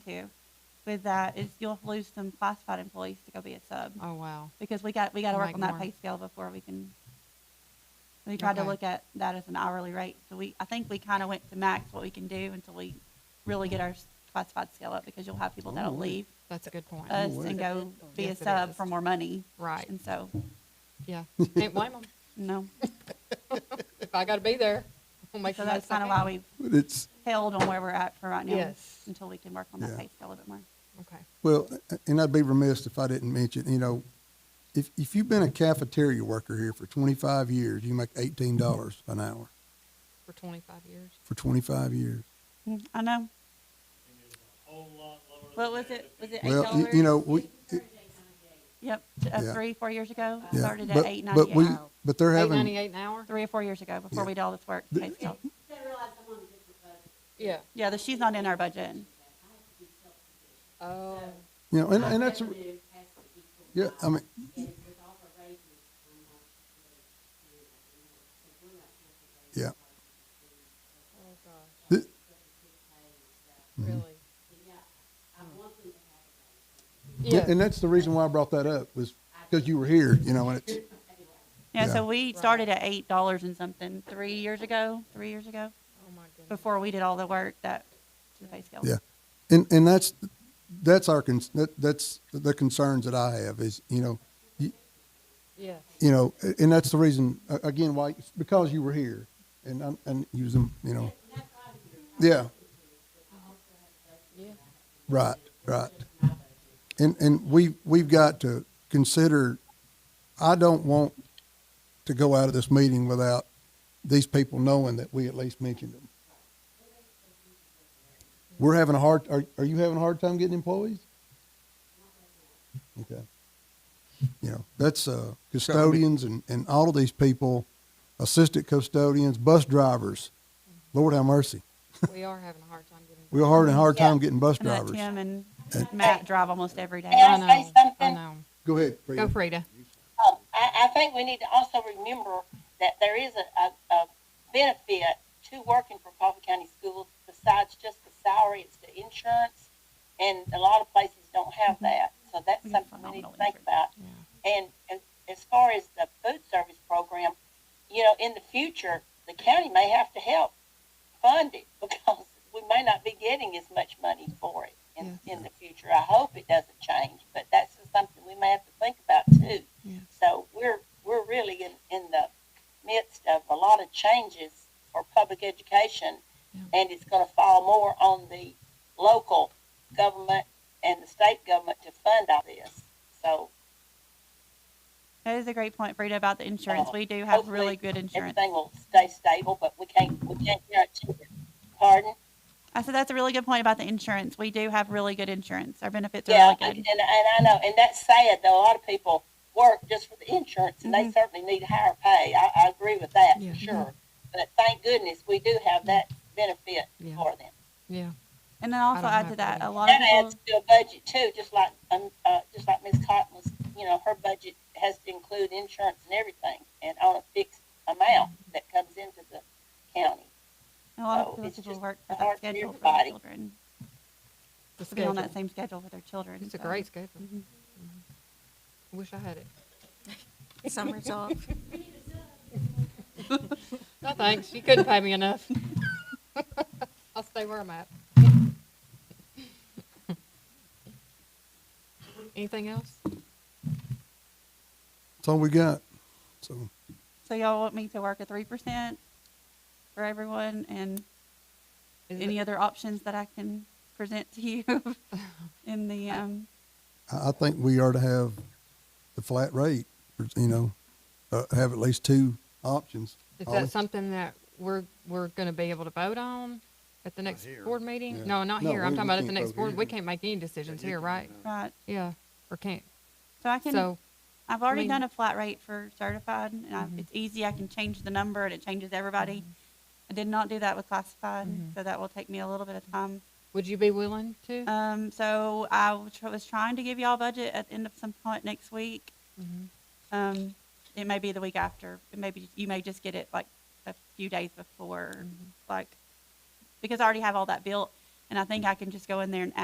too with that is you'll lose some classified employees to go be a sub Oh, wow. because we got we got to work Make on that more. pay scale before we can. We tried to Okay. look at that as an hourly rate, so we I think we kind of went to max what we can do until we really get our classified scale up because you'll have people that'll Alright. leave That's a good point. us Alright. and go be Yes, a it sub is. for more money, Right. and so Yeah. Can't blame them. no, If I got to be there, we'll make so the that's most of kind of it. why we But it's, held on where we're at for right now. Yes. Until we can work on that Yeah. pay scale a little bit more. Okay. well, and I'd be remiss if I didn't mention, you know, if, if you've been a cafeteria worker here for twenty-five years, you make eighteen dollars an hour For 25 years. for twenty-five years. Mm, I know. What was it? Was it eight Well, you- dollars? you know, we, Yep, t- uh, Yeah. three, four years ago, it yeah, started at eight but, but we, ninety-eight. but they're having, 898 an hour? Three or four years ago, before Yeah. we did all this work. The- pay scale. Yeah. Yeah, the, she's not in our budget. Oh, you know, and, and that's, yeah, I mean, yeah, oh gosh. Th- Really? yeah, Yeah. and that's the reason why I brought that up was because you were here, you know, and it's, Yeah, so Yeah. we started at eight dollars and something three years ago, three years ago, Oh, my goodness. before we did all the work that, to the pay scale. Yeah. And, and that's, that's our, con- that, that's the concerns that I have is, you know, you, Yes. you know, a- and that's the reason, a- again, why, it's because you were here and, I'm- and you was, in, you know. Yeah, Yeah. right, right. And, and we, we've got to consider, I don't want to go out of this meeting without these people knowing that we at least mentioned them. We're having a hard, are, are you having a hard time getting employees? Okay. You know, that's, uh, custodians and, and all of these people, assistant custodians, bus drivers. Lord have mercy. We are having a hard time getting. We're hard and hard time Yeah. getting bus And let drivers. Tim and Matt drive almost every day. Yeah. I Can I say know. I something? know. Go ahead. Go, Frida. Frida. Um, I, I think we need to also remember that there is a, a, a benefit to working for Coffee County Schools besides just the salary, it's the insurance, and a lot of places don't have Mm-hmm. that. So that's We have something we need to phenomenal think insurance. about. Yeah. And, and as far as the food service program, you know, in the future, the county may have to help fund it because we may not be getting as much money for it in, in the future. I hope it doesn't change, but that's just something we may have to think about too. Yes. So we're, we're really in, in the midst of a lot of changes for public education, Yeah. and it's gonna fall more on the local government and the state government to fund all this. So That is a great point, Frida, about the insurance. We do have really good insurance. everything will stay stable, but we can't, we can't guarantee it. Pardon? I said that's a really good point about the insurance. We do have really good insurance. Our benefits are Yeah, really and, good. and and I know, and that's sad, though. A lot of people work just for the insurance, and they Mhm. certainly need higher pay. I, I agree with that, Yeah. for sure. But thank goodness, we do have that benefit Yeah. for them. Yeah. And then also don't add have to that, that. a lot of That people. adds to a budget too, just like, um, uh, just like Ms. Cotton was, you know, her budget has to include insurance and everything, and on a fixed amount Mm-hmm. that comes into the county. A lot So of people it's people just work for that hard for schedule for their everybody. children, The to be on that schedule. same schedule with their children. It's a so. great schedule. Mhm. I Wish I had it. Summer's off. No, thanks. You couldn't pay me enough. I'll stay where I'm at. Anything else? That's all we got. So, So y'all want me to work a three percent for everyone and Is it- any other options that I can present to you in the, um, I, I think we are to have the flat rate, you know, uh, have at least two options. Is Ollie? that something that we're, we're gonna be able to vote on at the next board meeting? Yeah. No, not No, here. I'm we- talking we about at the can't next vote board. here. We can't make any decisions here, right? right, Yeah, or can't. so I can, So, I've already mean- done a flat rate for certified and I, Mhm. it's easy, I can change the number and it changes Mm-hmm. everybody. I did not do that with classified, Mhm. so that will take me a little bit of time. would you be willing to? Um, so I was tr- was trying to give y'all budget at the end of some point next week. Mhm. Um, it may be the week after. It may be, you may just get it like a few days Mm-hmm. before, like, because I already have all that built. And I think I can just go in there and